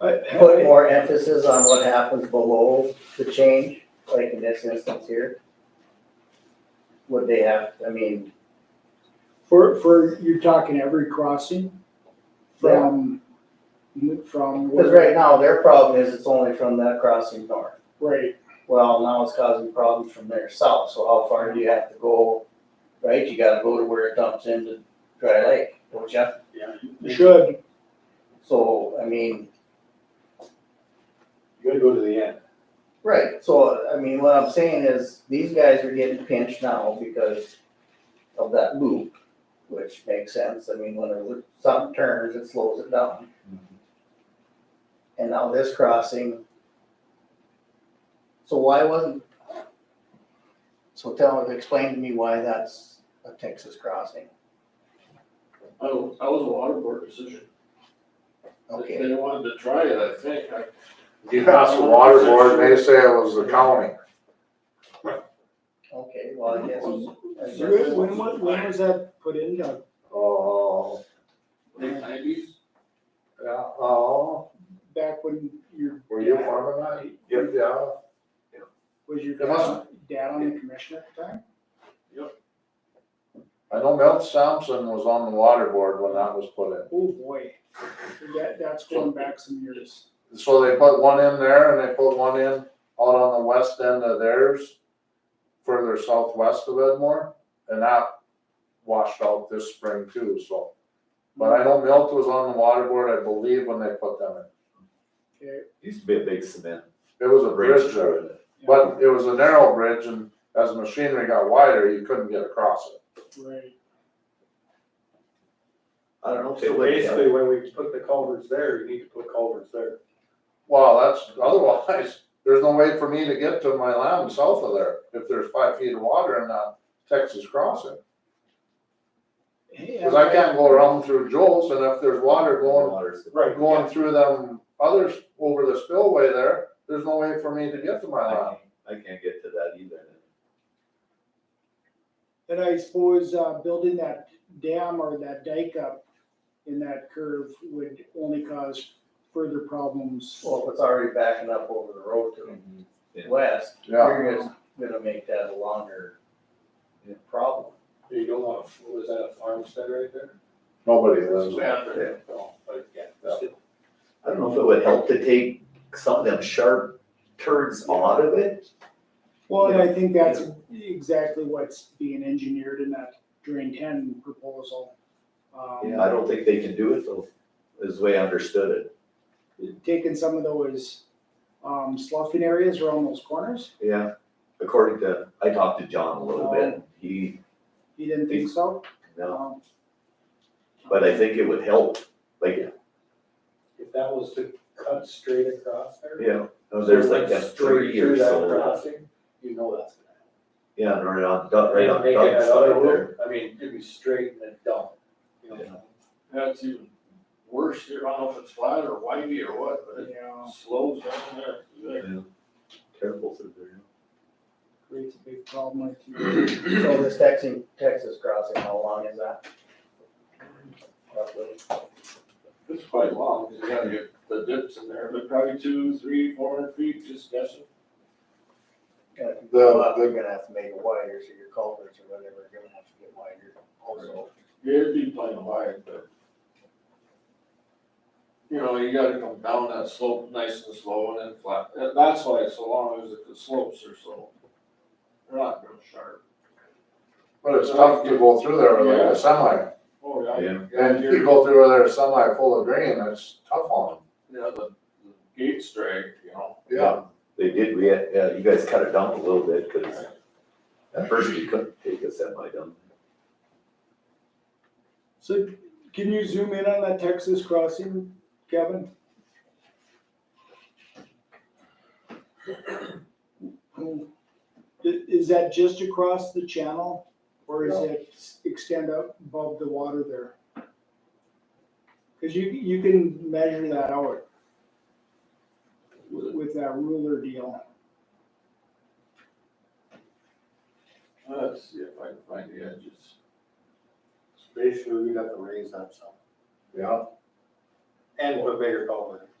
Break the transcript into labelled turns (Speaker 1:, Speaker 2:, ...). Speaker 1: Uh,
Speaker 2: put more emphasis on what happens below the change, like in this instance here? Would they have, I mean,
Speaker 1: For, for, you're talking every crossing from, from.
Speaker 2: because right now their problem is it's only from that crossing north.
Speaker 1: Right,
Speaker 2: Well, now it's causing problems from there south, so how far do you have to go? Right, you gotta go to where it dumps into Dry Lake, don't you?
Speaker 3: Yeah, you
Speaker 1: you should,
Speaker 2: So, I mean,
Speaker 3: you gotta go to the end.
Speaker 2: right, so, I mean, what I'm saying is, these guys are getting pinched now because of that loop, which makes sense, I mean, when it, something turns, it slows it down. And now this crossing. So why wasn't? So tell, explain to me why that's a Texas crossing,
Speaker 4: I was, I was a water board decision.
Speaker 2: okay.
Speaker 4: They wanted to try it, I think, I.
Speaker 5: You passed the water board, they say it was the county.
Speaker 2: Okay, well, I guess. I guess-
Speaker 1: when, when was- when was that put in, Doug?
Speaker 5: Oh,
Speaker 4: Late nineties,
Speaker 5: yeah, oh,
Speaker 1: back when your,
Speaker 5: were you farming that? Yep, yeah.
Speaker 1: was your
Speaker 5: It must-
Speaker 1: dad, dad on the commission at the time?
Speaker 5: I know Milt Sampson was on the water board when that was put in.
Speaker 1: Oh, boy. That, that's going back some years.
Speaker 5: So they put one in there and they put one in out on the west end of theirs, further southwest of Edmore, and that washed out this spring too, so. But I know Milt was on the water board, I believe, when they put them
Speaker 1: Okay,
Speaker 6: Used to be a big cement
Speaker 5: in. It was a
Speaker 6: bridge
Speaker 5: bridge
Speaker 6: through
Speaker 5: there.
Speaker 6: it.
Speaker 1: yeah,
Speaker 5: But it was a narrow bridge and as the machinery got wider, you couldn't get across it.
Speaker 1: Right,
Speaker 6: I don't know. if they
Speaker 3: So
Speaker 6: went
Speaker 3: basically,
Speaker 6: together.
Speaker 3: when we put the culverts there, you need to put culverts there.
Speaker 5: Well, that's, otherwise, there's no way for me to get to my land south of there if there's five feet of water in that Texas crossing. Cause I can't go around through Joel's and if there's water going,
Speaker 6: Waters.
Speaker 3: Right.
Speaker 5: going through them others over the spillway there, there's no way for me to get to my
Speaker 6: I
Speaker 5: land.
Speaker 6: can't- I can't get to that either.
Speaker 1: And I suppose, uh, building that dam or that dike up in that curve would only cause further problems.
Speaker 2: Well, if it's already backing up over the road to the
Speaker 6: Yeah.
Speaker 2: west,
Speaker 5: Yeah.
Speaker 2: you're just gonna make that a longer
Speaker 6: Yeah.
Speaker 2: problem.
Speaker 3: You don't want, a- was that a farmstead right there?
Speaker 5: Nobody lives there.
Speaker 6: Yeah.
Speaker 3: No, but yeah.
Speaker 6: I don't know if it would help to take some of them sharp turns out of it.
Speaker 1: Well, and I think that's exactly what's being engineered in that drain ten proposal. Um,
Speaker 6: I don't think they can do it though, is the way I understood it.
Speaker 1: Taking some of those, um, sloughing areas around those corners,
Speaker 6: Yeah. Oh. According to, I talked to John a little bit. He,
Speaker 1: you didn't think so?
Speaker 6: no,
Speaker 1: Um,
Speaker 6: but I think it would help. Like,
Speaker 3: If that was to cut straight across there.
Speaker 6: yeah, there's like
Speaker 3: that
Speaker 6: that three uh, or so.
Speaker 3: You know that's gonna happen.
Speaker 6: Yeah, and right on, Doug- right on
Speaker 3: Make it
Speaker 6: Doug's
Speaker 3: another
Speaker 6: side there.
Speaker 3: loop. I mean, it'd be straight and then dump. you know?
Speaker 6: Yeah.
Speaker 4: that's even worse here, I don't know if it's flat or windy or what, but
Speaker 1: Yeah,
Speaker 4: it slows down there.
Speaker 6: Yeah. Terrible through there.
Speaker 1: creates a big problem with you.
Speaker 2: So this Texas, Texas crossing, how long is that? Roughly.
Speaker 4: It's quite long, 'cause you gotta get the dips in there, but probably two, three, four hundred feet, just guessing.
Speaker 2: And if you
Speaker 5: The-
Speaker 2: go up,
Speaker 5: the-
Speaker 2: you're gonna have to make it wider, so your culverts or whatever are gonna have to get wider also.
Speaker 4: Yeah, It'd be plenty wide, but. You know, you gotta come down that slope nice and slow and then flat, And that's why it's so long, is that the slopes are so, they're not real sharp.
Speaker 5: But it's tough to go through there with like a semi.
Speaker 4: Oh, yeah.
Speaker 6: Yeah.
Speaker 5: And you go through there semi full of grain, it's tough on
Speaker 4: Yeah, the, the gate's drag, you know.
Speaker 5: them. Yeah.
Speaker 6: They did, we had, yeah, you guys cut it down a little bit, cause at first you couldn't take a semi down.
Speaker 1: So can you zoom in on that Texas crossing, Kevin? I- Is that just across the channel or is
Speaker 5: No.
Speaker 1: it extend up above the water there? Cause you, you can measure that out with with that ruler deal.
Speaker 4: Let's see if I can find the edges.
Speaker 3: Basically, we got to raise that some
Speaker 5: Yeah.
Speaker 3: and put bigger culverts.